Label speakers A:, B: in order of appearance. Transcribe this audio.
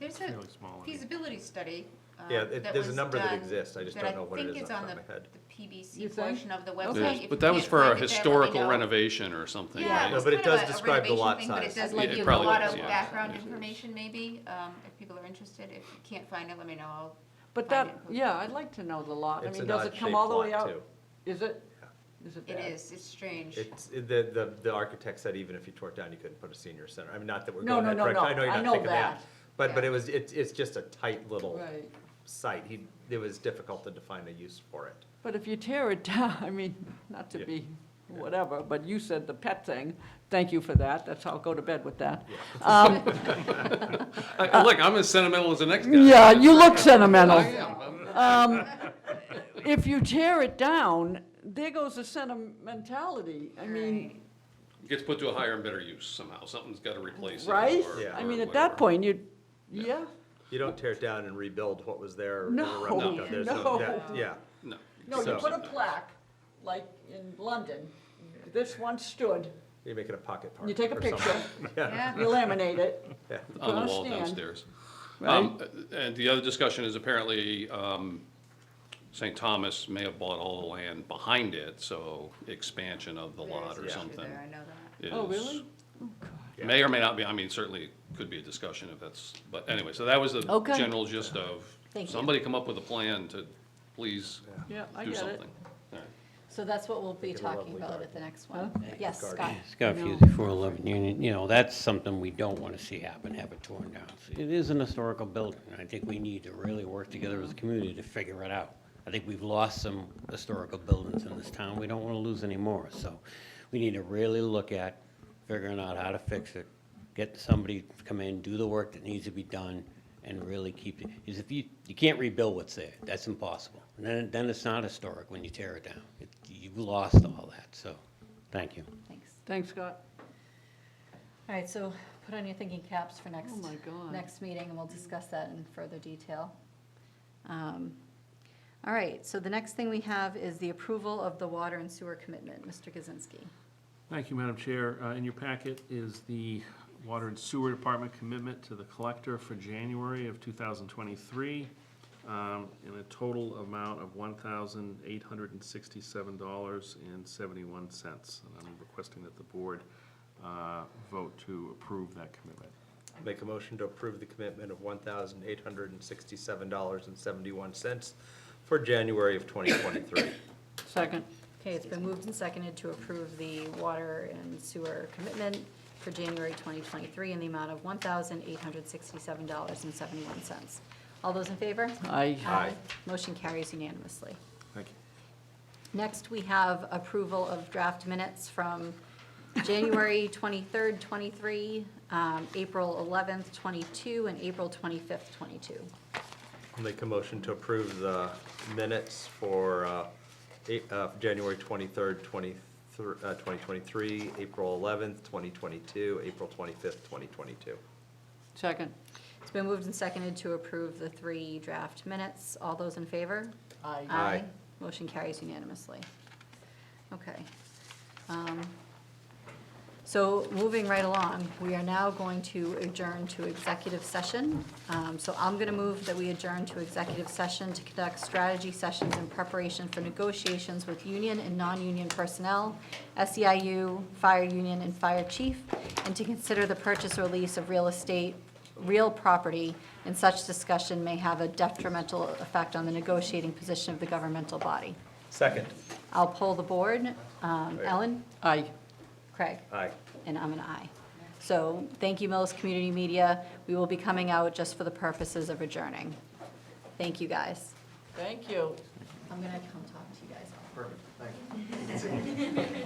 A: It's a
B: Really small, I mean.
A: feasibility study. um,
C: Yeah, it-
A: that
C: there's a
A: was
C: number that
A: done-
C: exists. I just
A: that
C: don't know what it
A: think
C: is
A: it's
C: off
A: on the-
C: the top of my head.
A: the PBC
D: You think?
A: portion of the
D: Okay.
A: website.
D: There's-
A: If
E: Yes,
A: you
E: But that was
A: can't
E: for a
A: find it there, let me
E: historical
A: know.
E: renovation or something,
A: Yeah,
C: No,
E: right?
A: it's
C: but it
A: kind of
C: does
A: a- a
C: describe the
A: renovation
C: lot
A: thing, But it
C: size.
A: does
D: Yeah,
A: give
D: it
A: you a
D: probably
A: lot
D: does,
A: of
D: yeah.
A: background
E: It is.
A: information maybe, um, if people are interested. If you can't find it, let me know. I'll
D: But
A: find
D: that,
A: it.
D: yeah, I'd like to know the lot. I
C: It's
D: mean,
C: an
D: does it
C: odd
D: come
C: shaped
D: all the way
C: lot
D: out?
C: too.
D: Is it? Is it
A: It
D: bad?
A: is, it's strange.
C: It's, the, the, the architect said even if you tore it down, you couldn't put a senior center. I mean, not that we're
D: No,
C: going
D: no,
C: that
D: no,
C: direction.
D: no.
C: I know you're
D: I
C: not
D: know
C: thinking that.
D: that.
C: But, but
A: Yeah.
C: it was, it's, it's just a tight little
D: Right.
C: site. He, it was difficult to define a use for it.
D: But if you tear it down, I mean, not to
C: Yeah.
D: be whatever, but you said the pet thing. Thank you for that. That's, I'll go to bed with that. Um,
E: I- I- Look, I'm as sentimental as the next guy.
D: Yeah, you look
E: I
D: sentimental.
C: Oh,
E: am. I'm-
D: Um, If you tear it down, there goes the sentimentality. I mean,
A: Right.
E: Gets put to a higher and better use somehow. Something's got to replace it.
D: right?
E: or-
C: Yeah.
D: I
E: or
D: mean, at
E: whatever.
D: that point, you, yeah,
C: You don't tear it down and rebuild what was there. in a
D: No,
C: rundown. There's
D: no.
C: that- Yeah.
E: No.
D: no, you
C: So-
D: put a plaque, like in London, this once stood,
C: You make it a pocket park.
D: you take a
C: or something.
D: picture,
A: Yeah.
D: you laminate it.
C: Yeah.
E: On the
D: Put a
E: wall
D: stand.
E: downstairs. Um, And the other discussion is apparently um, St. Thomas may have bought all the land behind it, so expansion of the
A: There
E: lot
A: is
E: or
A: issue
E: something.
A: there, I know that.
D: Oh,
E: is-
D: really?
E: May or may not be, I mean, certainly could be a discussion if that's, but anyway, so that was the
D: Okay.
E: general gist of,
F: Thank you.
E: somebody come up with a plan to please
D: Yeah, I
E: do
D: get it.
E: something. All right.
F: So that's what we'll be
C: Give it a
F: talking
C: lovely
F: about
C: garden.
F: at the next one. Yes, Scott.
G: Scott Fusey, 411 Union, you know, that's something we don't want to see happen, have it torn down. It is an historical building, and I think we need to really work together as a community to figure it out. I think we've lost some historical buildings in this town, we don't want to lose any more, so we need to really look at figuring out how to fix it, get somebody to come in, do the work that needs to be done, and really keep it, because if you, you can't rebuild what's there, that's impossible. And then, then it's not historic when you tear it down, It- you've lost all that, so, thank you.
F: Thanks.
D: Thanks, Scott.
F: All right, so put on your thinking caps for next,
D: Oh my God.
F: next meeting, and we'll discuss that in further detail. Um, All right, so the next thing we have is the approval of the water and sewer commitment. Mr. Kaczynski.
B: Thank you, Madam Chair. Uh, In your packet is the Water and Sewer Department commitment to the collector for January of 2023 um, in a total amount of $1,867.71. And I'm requesting that the board uh, vote to approve that commitment.
C: Make a motion to approve the commitment of one thousand eight hundred and sixty-seven dollars and seventy-one cents for January of twenty twenty-three.
D: Second.
F: Okay, it's been moved and seconded to approve the water and sewer commitment for January 2023 in the amount of $1,867.71. All those in favor?
D: I,
C: Aye.
F: Uh, Motion carries unanimously.
B: Thank you.
F: Next, we have approval of draft minutes from January 23rd, 23, um, April 11th, 22, and April 25th, 22.
C: Make a motion to approve the minutes for uh, eight- uh, January 23rd, 23 uh, 2023, April 11th, 2022, April 25th, 2022.
D: second.
F: It's been moved and seconded to approve the three draft minutes. All those in favor?
D: I,
C: Aye.
F: Motion carries unanimously. Okay. Um, So moving right along, we are now going to adjourn to executive session. Um, So I'm going to move that we adjourn to executive session to conduct strategy sessions in preparation for negotiations with union and non-union personnel, SEIU, fire union, and fire chief, and to consider the purchase or lease of real estate, real property, and such discussion may have a detrimental effect on the negotiating position of the governmental body.
C: Second.
F: I'll poll the board. Um, Ellen?
D: I.
F: Craig?
C: Aye.
F: And I'm an aye. So thank you, Millis Community Media. We will be coming out just for the purposes of adjourning. Thank you, guys.
D: Thank you.
F: I'm going to come talk to you guys. Perfect,